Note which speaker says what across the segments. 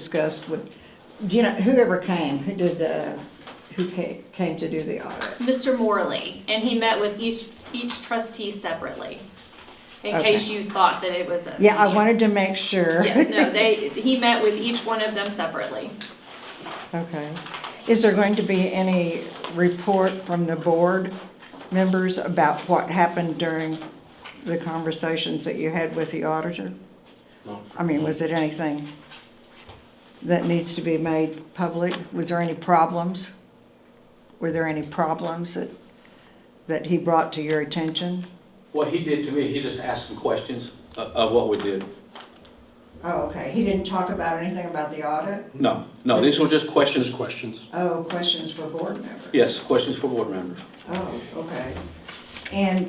Speaker 1: discussed with, do you know, whoever came, who did, uh, who ca- came to do the audit.
Speaker 2: Mr. Morley, and he met with each, each trustee separately, in
Speaker 1: Okay.
Speaker 2: case you thought that it was a.
Speaker 1: Yeah, I wanted to make sure.
Speaker 2: Yes, no, they, he met with each one of them separately.
Speaker 1: Okay. Is there going to be any report from the board members about what happened during the conversations that you had with the auditor? I mean, was it anything that needs to be made public? Was there any problems? Were there any problems that, that he brought to your attention?
Speaker 3: What he did to me, he just asked some questions of- of what we did.
Speaker 1: Oh, okay, he didn't talk about anything about the audit?
Speaker 3: No, no, these were just questions.
Speaker 4: questions.
Speaker 1: Oh, questions for board members?
Speaker 3: Yes, questions for board members.
Speaker 1: Oh, okay. And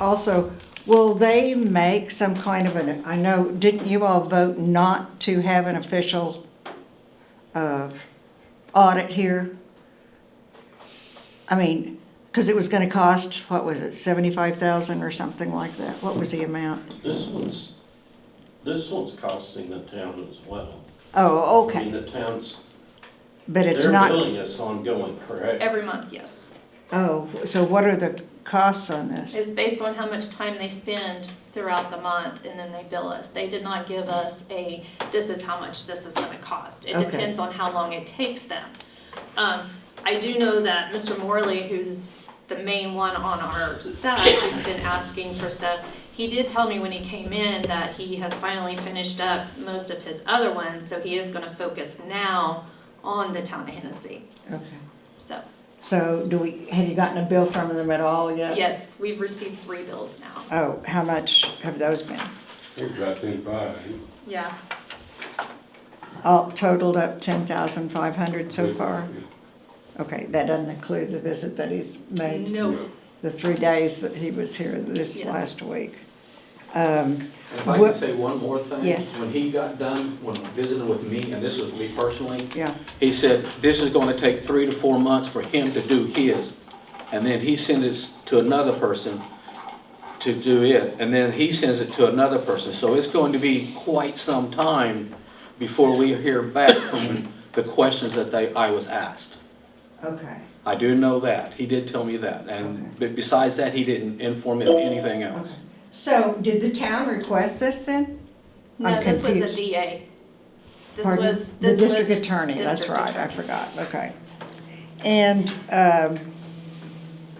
Speaker 1: also, will they make some kind of an, I know, didn't you all vote not to have an official uh, audit here? I mean, because it was going to cost, what was it, 75,000 or something like that? What was the amount?
Speaker 5: This one's, this one's costing the town as well.
Speaker 1: Oh,
Speaker 5: I mean,
Speaker 1: okay,
Speaker 5: the town's,
Speaker 1: but it's
Speaker 5: they're
Speaker 1: not.
Speaker 5: billing us ongoing, correct?
Speaker 2: Every month, yes.
Speaker 1: Oh, so what are the costs on this?
Speaker 2: It's based on how much time they spend throughout the month, and then they bill us. They did not give us a, this is how much this is gonna cost. It
Speaker 1: Okay.
Speaker 2: depends on how long it takes them. Um, I do know that Mr. Morley, who's the main one on our staff, who's been asking for stuff, he did tell me when he came in that he has finally finished up most of his other ones, so he is gonna focus now on the town of Hennessy,
Speaker 1: Okay.
Speaker 2: so.
Speaker 1: So do we, have you gotten a bill from them at all yet?
Speaker 2: Yes, we've received three bills now.
Speaker 1: Oh, how much have those been?
Speaker 6: Exactly five.
Speaker 2: Yeah,
Speaker 1: All totaled up ten thousand five hundred so far? Okay, that doesn't include the visit that he's made,
Speaker 2: no,
Speaker 1: the three days that he was here this
Speaker 2: Yes.
Speaker 1: last week. Um,
Speaker 3: And if I
Speaker 1: What-
Speaker 3: can say one more thing?
Speaker 1: Yes.
Speaker 3: When he got done, when visiting with me, and this was me personally,
Speaker 1: yeah,
Speaker 3: he said, this is going to take three to four months for him to do his. And then he sends it to another person to do it, and then he sends it to another person. So it's going to be quite some time before we hear back from the questions that they, I was asked.
Speaker 1: okay,
Speaker 3: I do know that. He did tell me that. And be- besides that, he didn't inform me of anything else.
Speaker 1: okay. So did the town request this then?
Speaker 2: no,
Speaker 1: I'm
Speaker 2: this was a
Speaker 1: confused.
Speaker 2: DA. This
Speaker 1: Pardon?
Speaker 2: was, this was.
Speaker 1: The district attorney, that's
Speaker 2: district
Speaker 1: right, I
Speaker 2: attorney.
Speaker 1: forgot, okay. And, um,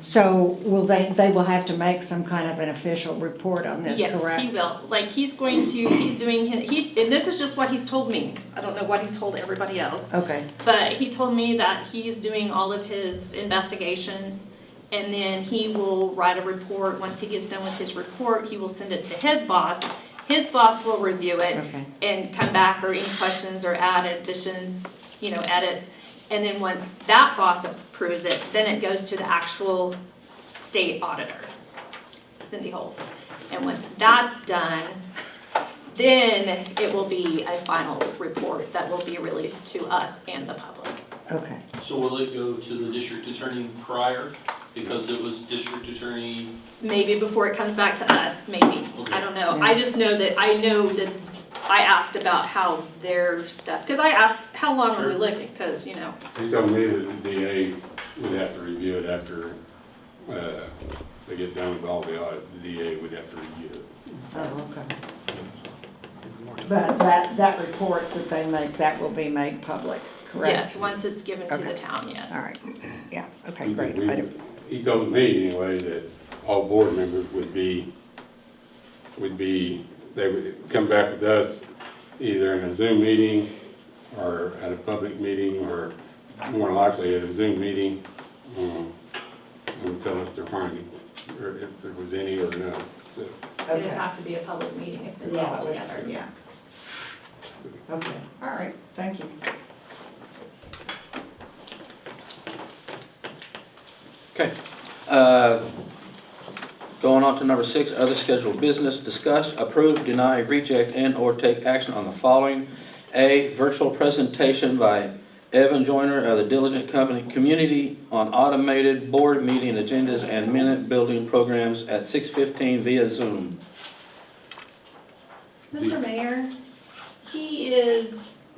Speaker 1: so will they, they will have to make some kind of an official report on this, correct?
Speaker 2: Yes, he will, like, he's going to, he's doing, hi- he, and this is just what he's told me, I don't know what he told everybody else.
Speaker 1: Okay,
Speaker 2: But he told me that he's doing all of his investigations, and then he will write a report, once he gets done with his report, he will send it to his boss. His boss will review it,
Speaker 1: okay,
Speaker 2: and come back or any questions or add additions, you know, edits. And then once that boss approves it, then it goes to the actual state auditor, Cindy Holt. And once that's done, then it will be a final report that will be released to us and the public.
Speaker 1: okay.
Speaker 4: So will it go to the district attorney prior, because it was district attorney?
Speaker 2: Maybe before it comes back to us, maybe, I don't know. I
Speaker 1: Okay.
Speaker 2: just know that, I know that I asked about how their stuff, because I asked, how long are we
Speaker 6: Sure.
Speaker 2: looking? Because, you know,
Speaker 6: He told me that the DA would have to review it after, uh, they get done with all the audit, the DA would have to review it.
Speaker 1: Oh, okay. But that, that report that they make, that will be made public, correct?
Speaker 2: Yes, once it's given to
Speaker 1: Okay.
Speaker 2: the town, yes.
Speaker 1: All right, yeah, okay,
Speaker 6: He
Speaker 1: great.
Speaker 6: said
Speaker 1: I
Speaker 6: we-
Speaker 1: don't-
Speaker 6: He told me anyway that all board members would be, would be, they would come back with us either in a Zoom meeting or at a public meeting or more likely at a Zoom meeting, um, and tell us their findings, or if there was any or no. So
Speaker 2: It'd
Speaker 1: Okay.
Speaker 2: have to be a public meeting if they're all
Speaker 1: Yeah,
Speaker 2: together.
Speaker 1: yeah. Okay, all right, thank you.
Speaker 3: Okay. Uh, Going on to number six, other scheduled business, discuss, approve, deny, reject, and/or take action on the following. A, virtual presentation by Evan Joyner of the Diligent Company Community on automated board meeting agendas and minute building programs at 6:15 via Zoom.
Speaker 2: Mr. Mayor, he is